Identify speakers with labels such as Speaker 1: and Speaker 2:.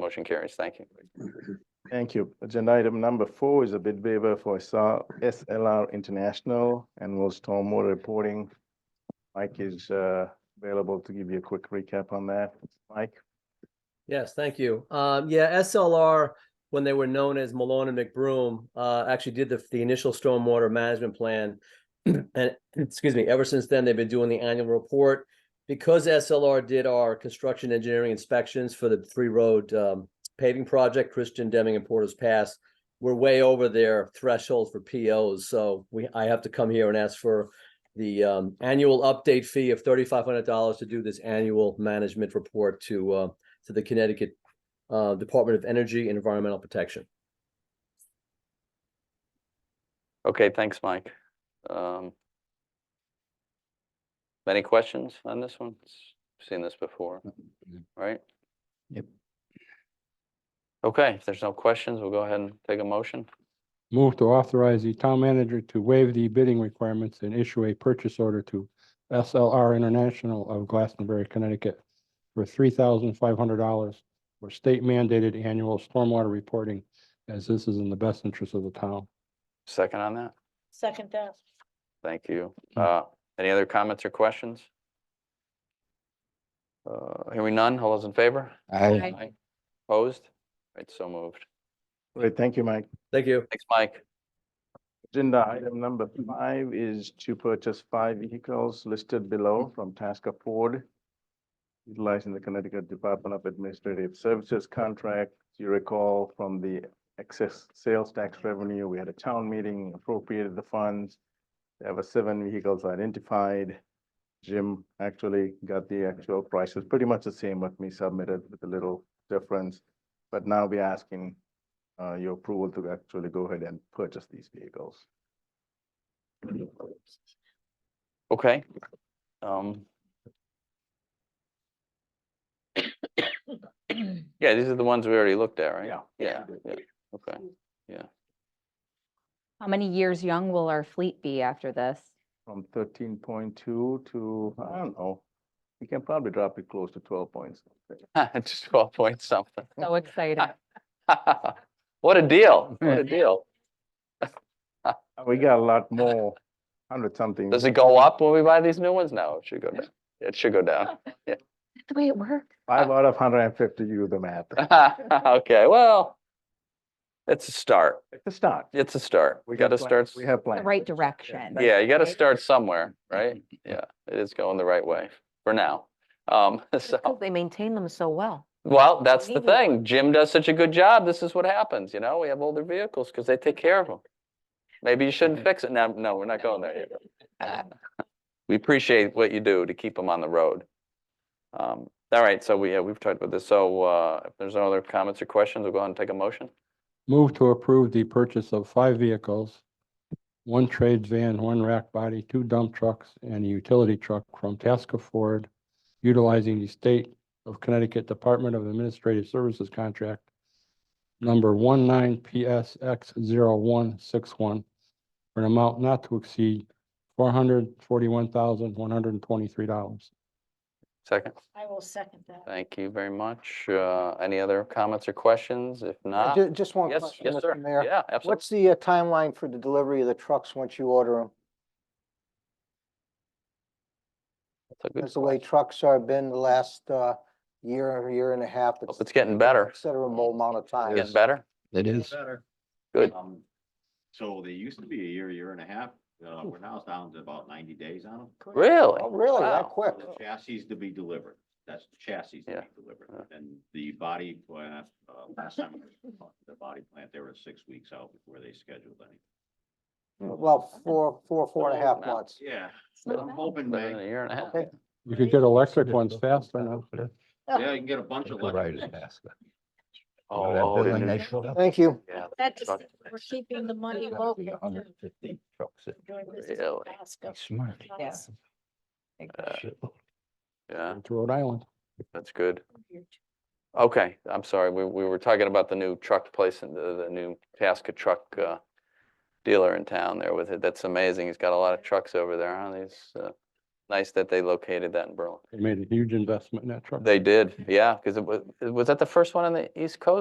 Speaker 1: Motion carries. Thank you.
Speaker 2: Thank you. Agenda item number four is a bid waiver for SR SLR International annual stormwater reporting. Mike is uh, available to give you a quick recap on that. Mike?
Speaker 3: Yes, thank you. Um, yeah, SLR, when they were known as Malone and McBroom, uh, actually did the, the initial stormwater management plan. And, excuse me, ever since then, they've been doing the annual report. Because SLR did our construction engineering inspections for the three-road, um, paving project, Christian Deming and Porter's Pass, we're way over their threshold for POs, so we, I have to come here and ask for the, um, annual update fee of thirty-five hundred dollars to do this annual management report to, uh, to the Connecticut uh, Department of Energy and Environmental Protection.
Speaker 1: Okay, thanks, Mike. Um, Any questions on this one? S- Seen this before, right?
Speaker 4: Yep.
Speaker 1: Okay, if there's no questions, we'll go ahead and take a motion.
Speaker 4: Move to authorize the town manager to waive the bidding requirements and issue a purchase order to SLR International of Glastonbury, Connecticut for three thousand five hundred dollars for state mandated annual stormwater reporting, as this is in the best interest of the town.
Speaker 1: Second on that?
Speaker 5: Second that.
Speaker 1: Thank you.
Speaker 4: Mm.
Speaker 1: Uh, Any other comments or questions? Uh, Hearing none, all those in favor?
Speaker 5: Aye.
Speaker 1: Opposed? Right, so moved.
Speaker 2: Great, thank you, Mike.
Speaker 3: Thank you.
Speaker 1: Thanks, Mike.
Speaker 2: Agenda item number five is to purchase five vehicles listed below from Tasker Ford. Utilizing the Connecticut Department of Administrative Services contract. You recall from the excess sales tax revenue, we had a town meeting, appropriated the funds. There were seven vehicles identified. Jim actually got the actual prices, pretty much the same what we submitted with a little difference. But now we're asking uh, your approval to actually go ahead and purchase these vehicles.
Speaker 1: Okay. Um, Yeah, these are the ones we already looked at, right?
Speaker 2: Yeah.
Speaker 1: Yeah, yeah, okay.
Speaker 6: How many years young will our fleet be after this?
Speaker 2: From thirteen point two to, I don't know, we can probably drop it close to twelve points.
Speaker 1: Just twelve point something.
Speaker 6: So exciting.
Speaker 1: What a deal, what a deal.
Speaker 2: We got a lot more, hundred something.
Speaker 1: Does it go up when we buy these new ones? No, it should go down. It should go down.
Speaker 6: That's the way it works.
Speaker 2: Five out of hundred and fifty, you do the math.
Speaker 1: Okay, well, it's a start.
Speaker 2: It's a start.
Speaker 1: It's a start. We
Speaker 2: got
Speaker 1: gotta
Speaker 2: plans.
Speaker 1: start. s-
Speaker 2: We have
Speaker 6: The
Speaker 2: plans.
Speaker 6: right direction.
Speaker 1: Yeah, you gotta
Speaker 6: right?
Speaker 1: start somewhere, right?
Speaker 5: Mm-hmm.
Speaker 1: Yeah, it is going the right way for now. Um, so,
Speaker 5: They maintain them so well.
Speaker 1: well, that's the
Speaker 5: Maybe.
Speaker 1: thing. Jim does such a good job. This is what happens, you know? We have older vehicles because they take care of them. Maybe you shouldn't fix it. No, no, we're not going there yet. we appreciate what you do to keep them on the road. Um, all right, so we, yeah, we've talked about this. So, uh, if there's no other comments or questions, we'll go ahead and take a motion.
Speaker 4: Move to approve the purchase of five vehicles, one trades van, one rack body, two dump trucks, and a utility truck from Tasker Ford, utilizing the State of Connecticut Department of Administrative Services contract number 19PSX0161 for an amount not to exceed $441,123.
Speaker 1: Second,
Speaker 5: I will second that.
Speaker 1: thank you very much. Uh, any other comments or questions? If
Speaker 7: Uh,
Speaker 1: not,
Speaker 7: ju- Just one
Speaker 1: yes,
Speaker 7: question,
Speaker 1: yes,
Speaker 7: Mr.
Speaker 1: sir.
Speaker 7: Mayor.
Speaker 1: Yeah, absolutely.
Speaker 7: What's the uh, timeline for the delivery of the trucks once you order them?
Speaker 1: That's a good
Speaker 7: Because the way
Speaker 1: point.
Speaker 7: trucks are been the last uh, year, year and a half,
Speaker 1: Hope
Speaker 7: it's
Speaker 1: It's getting better.
Speaker 7: considerable amount of time.
Speaker 1: Getting better?
Speaker 4: It is.
Speaker 1: Good.
Speaker 8: Um, So they used to be a year, year and a half, uh, we're now down to about ninety days on them.
Speaker 1: Really?
Speaker 7: Oh, really? That
Speaker 1: Wow.
Speaker 7: quick?
Speaker 8: The Chassis to be delivered, that's the chassis to
Speaker 1: Yeah.
Speaker 8: be delivered,
Speaker 1: Yeah.
Speaker 8: and the body plant, uh, last time we talked to the body plant, they were six weeks out before they scheduled any.
Speaker 7: Well, four, four, four and a half
Speaker 1: Now.
Speaker 7: months.
Speaker 8: Yeah,
Speaker 6: It's not
Speaker 8: I'm
Speaker 6: bad.
Speaker 8: hoping,
Speaker 1: Better than a
Speaker 8: May.
Speaker 1: year and a half.
Speaker 7: Okay.
Speaker 4: You could get electric ones faster now.
Speaker 8: yeah, you can get a bunch of electric.
Speaker 1: Oh, oh, the new-
Speaker 7: Thank you.
Speaker 1: yeah,
Speaker 5: That just,
Speaker 1: Truck.
Speaker 5: we're keeping the money local. too, doing business in
Speaker 1: Really?
Speaker 5: Alaska.
Speaker 4: Smart.
Speaker 5: Yeah.
Speaker 1: yeah,
Speaker 4: To Rhode Island.
Speaker 1: that's good. Okay, I'm sorry, we, we were talking about the new truck place and the, the new Tasca truck, uh, dealer in town there with it. That's amazing. He's got a lot of trucks over there, huh? He's, uh, nice that they located that in Berlin.
Speaker 4: They made a huge investment in that truck.
Speaker 1: They did, yeah, because it was, was that the first one on the East Coast?